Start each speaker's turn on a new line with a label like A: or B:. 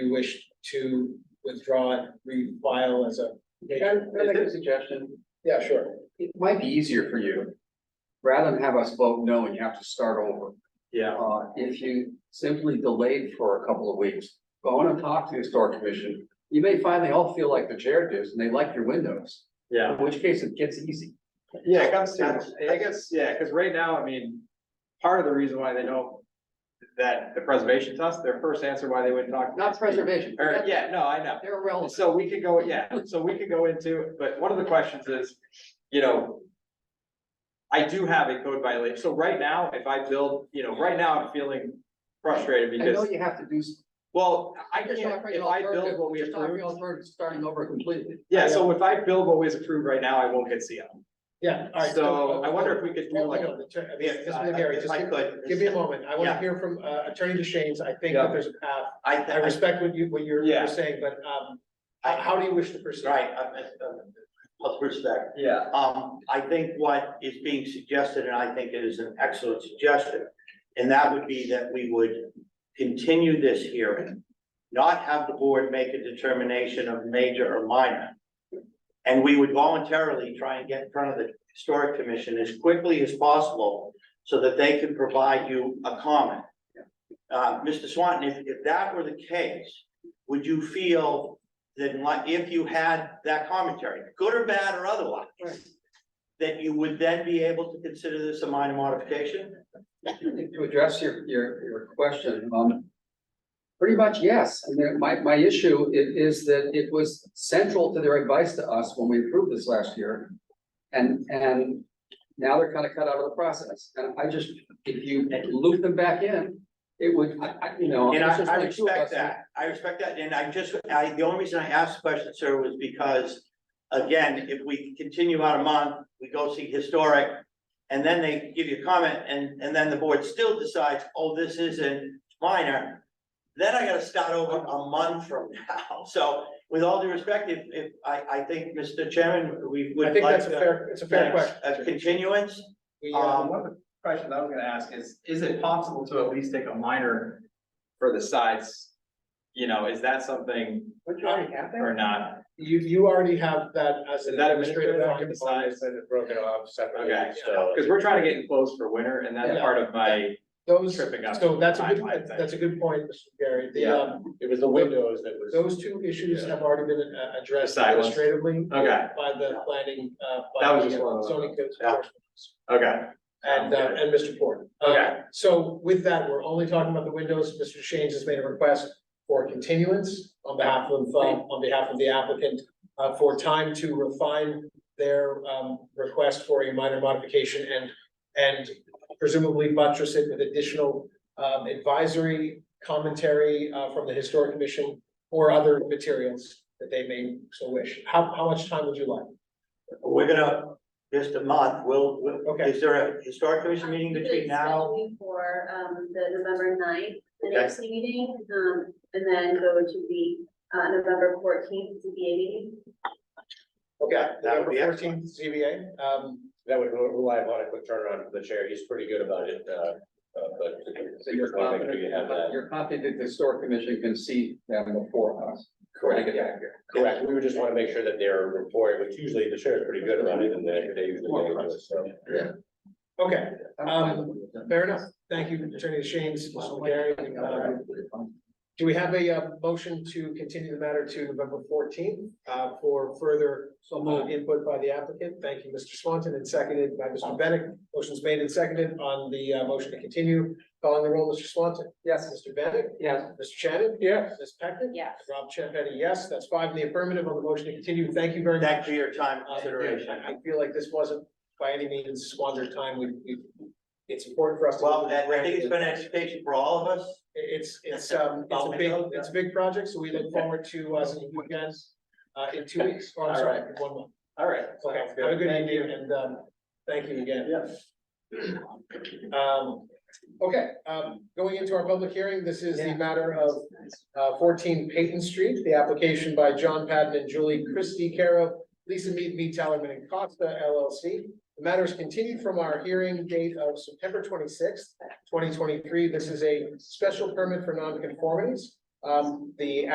A: you wish to withdraw and refile as a.
B: Can I make a suggestion?
A: Yeah, sure.
B: It might be easier for you, rather than have us vote no and you have to start over.
C: Yeah.
B: Uh, if you simply delayed for a couple of weeks, go on and talk to the historic commission. You may find they all feel like the chair does and they like your windows,
C: Yeah,
B: in which case it gets easy.
C: yeah, I guess, I guess, yeah, because right now, I mean, part of the reason why they don't. That the preservation test, their first answer why they wouldn't talk.
B: Not preservation,
C: Or,
B: they're
C: yeah, no, I know.
B: irrelevant.
C: So we could go, yeah, so we could go into, but one of the questions is, you know. I do have a code violation, so right now, if I build, you know, right now, I'm feeling frustrated
B: I know
C: because,
B: you have to do. s-
C: well, I
B: just
C: can't,
B: offering
C: if I build
B: alternative-
C: what we
B: just offering
C: approved.
B: alternative, Starting over completely.
C: Yeah, so if I build what was approved right now, I won't get CO.
A: Yeah, all right.
C: So I wonder if we could do like a
A: Just, just, Mary,
C: If
A: just
C: I
A: give-
C: could.
A: give me a moment. I want to
C: Yeah.
A: hear from uh, Attorney DeShanes. I think
C: Yeah.
A: that there's a path.
D: I,
A: I
D: I,
A: respect what you, what you're,
C: Yeah.
A: you're saying, but, um, how, how do you wish to proceed?
D: right, I'm, I'm- with respect.
C: Yeah.
D: Um, I think what is being suggested, and I think it is an excellent suggestion, and that would be that we would continue this hearing, not have the board make a determination of major or minor. And we would voluntarily try and get in front of the historic commission as quickly as possible so that they can provide you a comment. Uh, Mr. Swanton, if, if that were the case, would you feel that like, if you had that commentary, good or bad or otherwise, that you would then be able to consider this a minor modification?
B: To address your, your, your question, um. Pretty much, yes. I mean, my, my issue i- is that it was central to their advice to us when we approved this last year. And, and now they're kind of cut out of the process. And I just, if you loop them back in, it would, I, I, you know.
D: And I,
B: it's just
D: I
B: like two of
D: respect
B: us.
D: that, I respect that, and I just, I, the only reason I asked the question, sir, was because. Again, if we continue out a month, we go see historic, and then they give you a comment, and, and then the board still decides, oh, this isn't minor. Then I gotta start over a month from now, so with all due respect, if, if, I, I think, Mr. Chairman, we would
A: I
D: like.
A: think that's a
D: to-
A: fair, it's a fair question.
D: A continuance,
A: We,
C: Um,
A: um,
C: one of the questions I was gonna ask is, is it possible to at least take a minor for the sides? You know, is that something
B: Don't you have
C: or not?
A: uh, you, you already have that as
C: Is
A: an
C: that
A: administrative
C: administrative on
A: document.
C: the sides?
E: Send it broken off separately,
C: Okay.
E: so.
C: Cause we're trying to get close for winter and that's
A: Yeah.
C: part of my,
A: Those,
C: Tripping up
A: so that's a good,
C: timelines, I
A: that's a good point, Mr. Gary. The,
C: Yeah.
A: um,
E: It was the windows that was.
A: those two issues have already been uh, addressed
C: Side ones.
A: administratively
C: okay,
A: by the planning, uh,
C: That
A: by
C: was just
A: the
C: one
A: uh,
C: of them.
A: zoning code
C: Yeah.
A: enforcement.
C: okay.
A: And, uh,
C: Sounds
A: and Mr. Ford.
C: Okay.
A: Uh, So with that, we're only talking about the windows. Mr. Shanes has made a request for continuance on behalf of, uh, on behalf of the applicant uh, for time to refine their, um, request for a minor modification and, and presumably buttress it with additional, um, advisory commentary, uh, from the historic commission or other materials that they may so wish. How, how much time would you like?
D: we're gonna, just a month, we'll, we'll-
A: Okay,
D: is there a historic commission meeting between now?
F: For um the November 9th, the
D: Okay.
F: next meeting, um and then go to the uh November fourteenth ZBA meeting.
A: okay.
D: that would
A: November
D: be
A: fourteenth, ZBA, um,
E: That would rely upon a quick turnaround for the chair. He's pretty good about it, uh, uh, but.
B: So you're
E: Just wanna make sure you have
B: confident,
E: that.
B: you're confident the historic commission can see them before us.
E: Correct,
B: Yeah.
E: Correct. We would just wanna make sure that their report, which usually the chair is pretty good about it and they, they usually.
B: More
E: do it, so.
A: okay.
B: I'm fine
A: Um,
B: with it.
A: Fair enough. Thank you, Attorney Shane's, Mr. Gary. Uh, Do we have a uh, motion to continue the matter to November fourteenth uh, for further
B: So
A: uh,
B: moved.
A: input by the applicant? Thank you, Mr. Swanton, and seconded by Mr. Bennett. Motion's made and seconded on the uh, motion to continue. Calling the roll, Mr. Swanton.
B: Yes,
A: Mr. Bennett.
B: yes.
A: Mr. Shannon. Yes. Ms. Peckman.
F: Yes.
A: Rob Champetti, yes. That's five in the affirmative on the motion to continue. Thank you very much.
D: Thanks for your time
A: Uh,
D: consideration.
A: I I feel like this wasn't by any means squandered time. We, we, it's important for us to.
D: Well, I I think it's been an education for all of us.
A: It- It's, it's, um, it's a big, it's a big project, so we look forward to, uh, seeing you guys, uh, in two weeks, or I'm sorry, in one month.
C: All right.
A: Okay, have a good evening, and, um, thank you again. Yes. Um, okay, um, going into our public hearing, this is the matter of, uh, fourteen Peyton Street, the application by John Patton and Julie Christie Caro, Lisa Mead, V. Tellerman and Costa LLC. The matter is continued from our hearing date of September twenty-sixth, twenty twenty-three. This is a special permit for nonconformities. Um, the